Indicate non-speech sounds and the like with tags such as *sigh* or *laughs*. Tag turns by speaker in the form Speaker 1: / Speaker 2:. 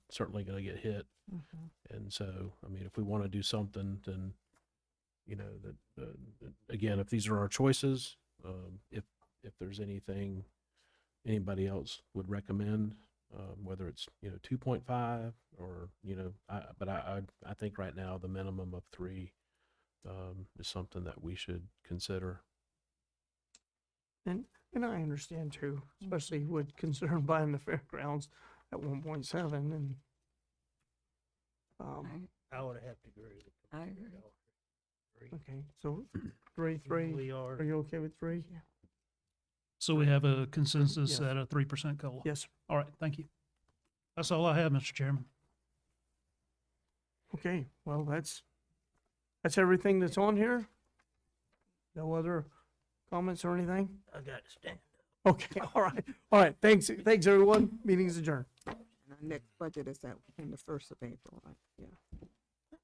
Speaker 1: certainly going to get hit. And so, I mean, if we want to do something, then, you know, that, uh, that- again, if these are our choices, um, if, if there's anything anybody else would recommend, um, whether it's, you know, two point five or, you know, I, but I, I, I think right now the minimum of three, um, is something that we should consider.
Speaker 2: And I understand too, especially with concern *laughs* buying the fairgrounds at one point seven and um,
Speaker 3: I would have to agree with
Speaker 4: I
Speaker 3: Commissioner
Speaker 4: agree.
Speaker 3: Elder. Three.
Speaker 2: okay, so three, three,
Speaker 3: We
Speaker 2: are
Speaker 3: are,
Speaker 2: you okay with three?
Speaker 5: So we have a consensus
Speaker 2: Yes.
Speaker 5: at a three percent COLA.
Speaker 2: Yes,
Speaker 5: All right, thank you. That's all I have, Mr. Chairman.
Speaker 2: okay, well, that's, that's everything that's on here? No other comments or anything?
Speaker 3: I gotta stand.
Speaker 2: Okay, *laughs* all right, all right, thanks, thanks, everyone, meeting's adjourned.
Speaker 4: And our next budget is that, in the first of April, right? Yeah.